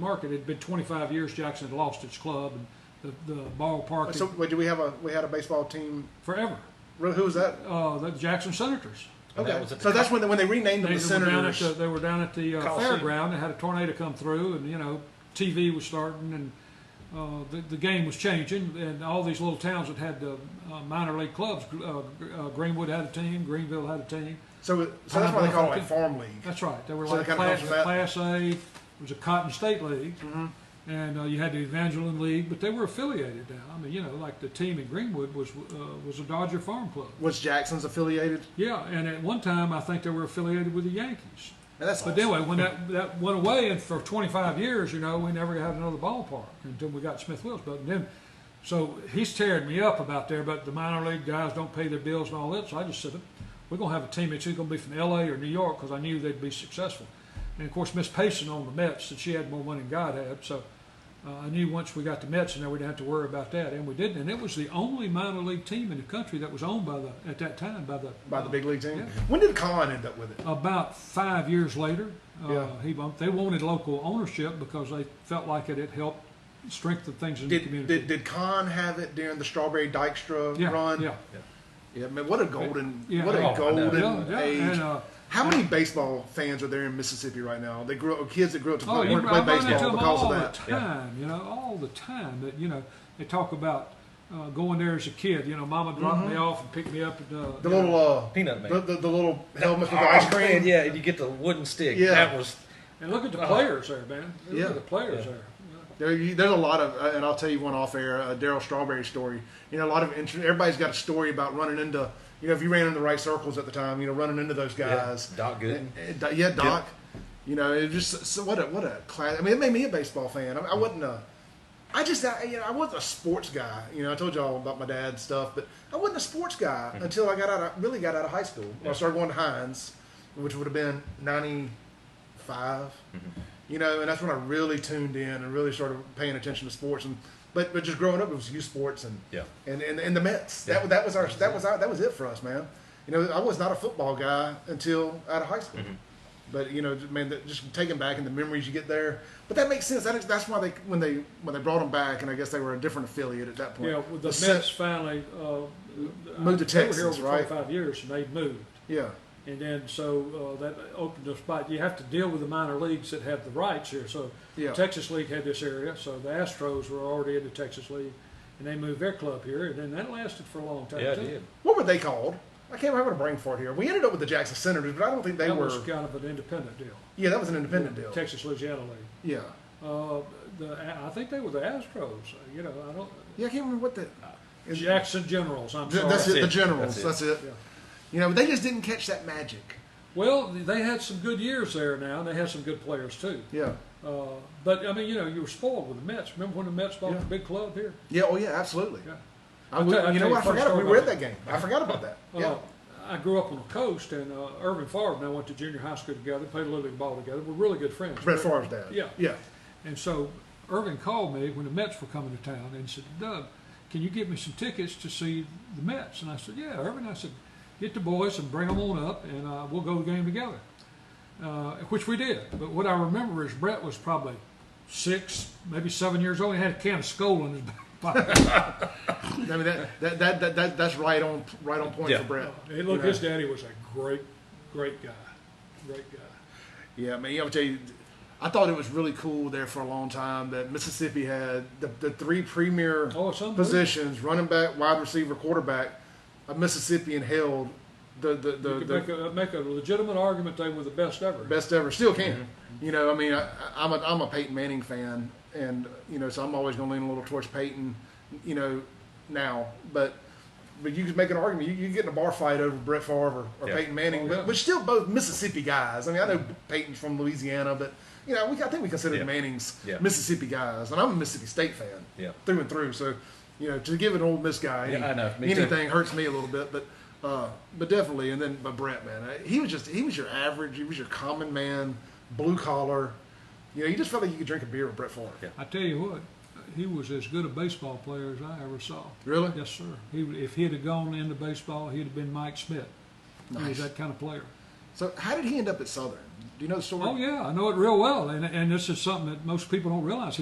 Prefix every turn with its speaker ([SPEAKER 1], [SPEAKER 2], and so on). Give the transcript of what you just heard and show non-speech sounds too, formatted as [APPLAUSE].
[SPEAKER 1] market. It'd been 25 years Jackson had lost its club and the, the ballpark
[SPEAKER 2] So
[SPEAKER 1] had-
[SPEAKER 2] wait, do we have a we had a baseball team?
[SPEAKER 1] forever.
[SPEAKER 2] Who was that?
[SPEAKER 1] Uh, the Jackson Senators.
[SPEAKER 3] And
[SPEAKER 2] Okay,
[SPEAKER 3] that was at the
[SPEAKER 2] so that's when they, when they renamed them
[SPEAKER 1] They
[SPEAKER 2] the
[SPEAKER 1] were down at
[SPEAKER 2] Senators.
[SPEAKER 1] the, they were down at the uh,
[SPEAKER 2] Coliseum.
[SPEAKER 1] fairground. They had a tornado come through, and you know, TV was starting, and uh, the, the game was changing, and all these little towns that had the uh, minor league clubs. Uh, uh, Greenwood had a team. Greenville had a Uh-huh. team.
[SPEAKER 2] so so that's why they call it like farm league.
[SPEAKER 1] That's right. They were
[SPEAKER 2] So
[SPEAKER 1] like
[SPEAKER 2] that kinda
[SPEAKER 1] class,
[SPEAKER 2] comes from that.
[SPEAKER 1] class A. It was a Cotton State League, and uh, you had the Evangeline League, but they were affiliated now. I mean, you know, like the team in Greenwood was uh, was a Dodger Farm Club.
[SPEAKER 2] Was Jackson's affiliated?
[SPEAKER 1] Yeah, and at one time I think they were affiliated with the Yankees.
[SPEAKER 2] And that's
[SPEAKER 1] But
[SPEAKER 2] awesome.
[SPEAKER 1] anyway, when that, that went away, and for 25 years, you know, we never had another ballpark until we got Smith Wills. And then, so he's tearing me up about there, but the minor league guys don't pay their bills and all that. So I just said, we're going to have a team that's either going to be from LA or New York because I knew they'd be successful. And of course, Miss Payson owned the Mets, and she had more money than God had. So uh, I knew once we got the Mets in there, we didn't have to worry about that. And we didn't. And it was the only minor league team in the country that was owned by the, at that time, by the,
[SPEAKER 2] by the big league team.
[SPEAKER 1] Yeah.
[SPEAKER 2] When did Colin end up with it?
[SPEAKER 1] about five years later, uh,
[SPEAKER 2] Yeah.
[SPEAKER 1] he bumped, they wanted local ownership because they felt like it had helped strengthen things in the
[SPEAKER 2] Did
[SPEAKER 1] community.
[SPEAKER 2] did, did Con have it during the Strawberry Dykstra
[SPEAKER 1] yeah,
[SPEAKER 2] run?
[SPEAKER 1] yeah,
[SPEAKER 2] yeah, man, what a golden,
[SPEAKER 1] yeah.
[SPEAKER 2] what a
[SPEAKER 3] Oh, I know.
[SPEAKER 2] golden
[SPEAKER 1] yeah, yeah.
[SPEAKER 2] age.
[SPEAKER 1] And, uh,
[SPEAKER 2] How many baseball fans are there in Mississippi right now? They grew up, kids that grew up to
[SPEAKER 1] oh,
[SPEAKER 2] play,
[SPEAKER 1] you, I
[SPEAKER 2] play
[SPEAKER 1] run into
[SPEAKER 2] baseball
[SPEAKER 1] them
[SPEAKER 2] because
[SPEAKER 1] all
[SPEAKER 2] of
[SPEAKER 1] the
[SPEAKER 2] that.
[SPEAKER 3] Yeah.
[SPEAKER 1] time, you know, all the time. That you know, they talk about uh, going there as a kid. You know, Mama dropped me off and picked me up. At, uh,
[SPEAKER 2] Mm-hmm. The
[SPEAKER 1] you know,
[SPEAKER 2] little uh,
[SPEAKER 3] Peanut man.
[SPEAKER 2] the, the, the little helmet with the ice cream.
[SPEAKER 3] Man, yeah, and you get the wooden stick.
[SPEAKER 2] Yeah.
[SPEAKER 3] That was
[SPEAKER 1] and look at the players there, man. Look
[SPEAKER 2] Uh-huh. Yeah.
[SPEAKER 1] at the players
[SPEAKER 3] Yeah.
[SPEAKER 1] there.
[SPEAKER 2] There, you, there's a lot of, uh, and I'll tell you one off air, uh, Daryl Strawberry story. You know, a lot of interest. Everybody's got a story about running into, you know, if you ran into the right circles at the time, you know, running into those guys.
[SPEAKER 3] Yeah, Doc Gooden.
[SPEAKER 2] And- and- yeah, Doc. You know, it just so what a what a class. I mean, it made me a baseball fan. I, I wasn't a, I just I, you know I wasn't a sports guy. You know, I told y'all about my dad's stuff, but I wasn't a sports guy until I got out. Of, really got out of high school. When I started going to Hines, which would have been ninety you know, and that's when I really tuned in and really started paying attention to sports. And but but just growing up, it was youth sports and
[SPEAKER 3] Yeah.
[SPEAKER 2] and and, and the Mets. That
[SPEAKER 3] Yeah.
[SPEAKER 2] that was our that was our, that was it for us, man. You know, I was not a football guy until out of high school. But you know, j- man, that- just taking back and the memories you get there. But that makes sense. That is, that's why they when they when they brought them back, and I guess they were a different affiliate at that point.
[SPEAKER 1] Yeah, well, the Mets
[SPEAKER 2] Sen-
[SPEAKER 1] finally uh,
[SPEAKER 2] Moved to
[SPEAKER 1] they were here
[SPEAKER 2] Texas,
[SPEAKER 1] over
[SPEAKER 2] right?
[SPEAKER 1] 25 years, and they moved.
[SPEAKER 2] Yeah,
[SPEAKER 1] And then, so uh, that opened a spot. You have to deal with the minor leagues that have the rights here. So
[SPEAKER 2] Yeah.
[SPEAKER 1] Texas League had this area. So the Astros were already in the Texas League, and they moved their club here. And then that lasted for a long time.
[SPEAKER 3] yeah, it
[SPEAKER 1] too.
[SPEAKER 3] did.
[SPEAKER 2] what were they called? I can't remember a brain fart here. We ended up with the Jackson Senators, but I don't think they
[SPEAKER 1] that
[SPEAKER 2] were.
[SPEAKER 1] was kind of an independent deal.
[SPEAKER 2] yeah, that was an independent deal.
[SPEAKER 1] Texas Louisiana League.
[SPEAKER 2] yeah,
[SPEAKER 1] Uh, the I think they were the Astros. You know, I don't.
[SPEAKER 2] yeah, I can't remember what the. is-
[SPEAKER 1] Jackson Generals. I'm
[SPEAKER 2] Th-
[SPEAKER 1] sorry.
[SPEAKER 2] That's,
[SPEAKER 3] That's
[SPEAKER 2] it. The
[SPEAKER 3] it.
[SPEAKER 2] generals. That's
[SPEAKER 3] That's
[SPEAKER 2] it.
[SPEAKER 1] Yeah.
[SPEAKER 2] You know, they just didn't catch that magic.
[SPEAKER 1] Well, they had some good years there now, and they had some good players too.
[SPEAKER 2] Yeah.
[SPEAKER 1] Uh, but I mean, you know, you were spoiled with the Mets. Remember when the Mets bought
[SPEAKER 2] Yeah.
[SPEAKER 1] the big club here?
[SPEAKER 2] Yeah. Oh, yeah. Absolutely.
[SPEAKER 1] Yeah.
[SPEAKER 2] I,
[SPEAKER 1] I'll
[SPEAKER 2] would-
[SPEAKER 1] tell- I'll
[SPEAKER 2] you know,
[SPEAKER 1] tell you
[SPEAKER 2] I
[SPEAKER 1] a funny
[SPEAKER 2] forgot. We
[SPEAKER 1] story
[SPEAKER 2] were at
[SPEAKER 1] about
[SPEAKER 2] that game. I forgot
[SPEAKER 1] [LAUGHS]
[SPEAKER 2] about that.
[SPEAKER 1] Uh,
[SPEAKER 2] yeah.
[SPEAKER 1] I grew up on the coast, and uh, Irvin Favre and I went to junior high school together, played a little league ball together. We're really good friends.
[SPEAKER 2] Brett Favre's dad.
[SPEAKER 1] Yeah.
[SPEAKER 2] Yeah.
[SPEAKER 1] And so Irvin called me when the Mets were coming to town and said, Doug, can you get me some tickets to see the Mets? And I said, Yeah, Irvin. I said, get the boys and bring them on up, and uh, we'll go to the game together, uh, which we did. But what I remember is Brett was probably six, maybe seven years old. He had a can of Skol in his [LAUGHS] pocket.
[SPEAKER 2] I mean, that, that, that, that, that that's right on right on point
[SPEAKER 3] Yeah.
[SPEAKER 2] for Brett.
[SPEAKER 1] Hey, look,
[SPEAKER 2] You know?
[SPEAKER 1] his daddy was a great, great guy. Great guy.
[SPEAKER 2] Yeah, man. I'll tell you, I thought it was really cool there for a long time that Mississippi had the, the three premier
[SPEAKER 1] Oh, it's unbelievable.
[SPEAKER 2] positions: running back, wide receiver, quarterback. A Mississippian held the the the,
[SPEAKER 1] You could
[SPEAKER 2] the
[SPEAKER 1] make, a, make a legitimate argument they were the best ever.
[SPEAKER 2] best ever. Still can.
[SPEAKER 3] Mm-hmm.
[SPEAKER 2] You know, I mean, I, I'm a I'm a Peyton Manning fan, and you know, so I'm always going to lean a little towards Peyton. You know, now, but but you can make an argument. You, you get in a bar fight over Brett Favre or, or
[SPEAKER 3] Yeah. Mm-hmm.
[SPEAKER 2] Peyton Manning,
[SPEAKER 1] Oh, yeah.
[SPEAKER 2] but, but still both Mississippi guys. I mean, I know Peyton's from Louisiana, but you know, we I think we consider
[SPEAKER 3] Yeah.
[SPEAKER 2] the Mannings
[SPEAKER 3] Yeah.
[SPEAKER 2] Mississippi guys, and I'm a Mississippi State fan
[SPEAKER 3] Yeah.
[SPEAKER 2] through and through. So. You know, to give an old Miss guy any,
[SPEAKER 3] Yeah, I know. Me too.
[SPEAKER 2] anything hurts me a little bit, but uh, but definitely. And then but Brett, man, uh, he was just he was your average, he was your common man, blue collar. You know, you just felt like you could drink a beer with Brett Favre.
[SPEAKER 3] Yeah.
[SPEAKER 1] I tell you what, he was as good a baseball player as I ever saw.
[SPEAKER 2] Really?
[SPEAKER 1] Yes, sir. He, if he'd have gone into baseball, he'd have been Mike Smith. He
[SPEAKER 2] Nice.
[SPEAKER 1] was that kind of player.
[SPEAKER 2] So how did he end up at Southern? Do you know the story?
[SPEAKER 1] Oh yeah, I know it real well, and and this is something that most people don't realize.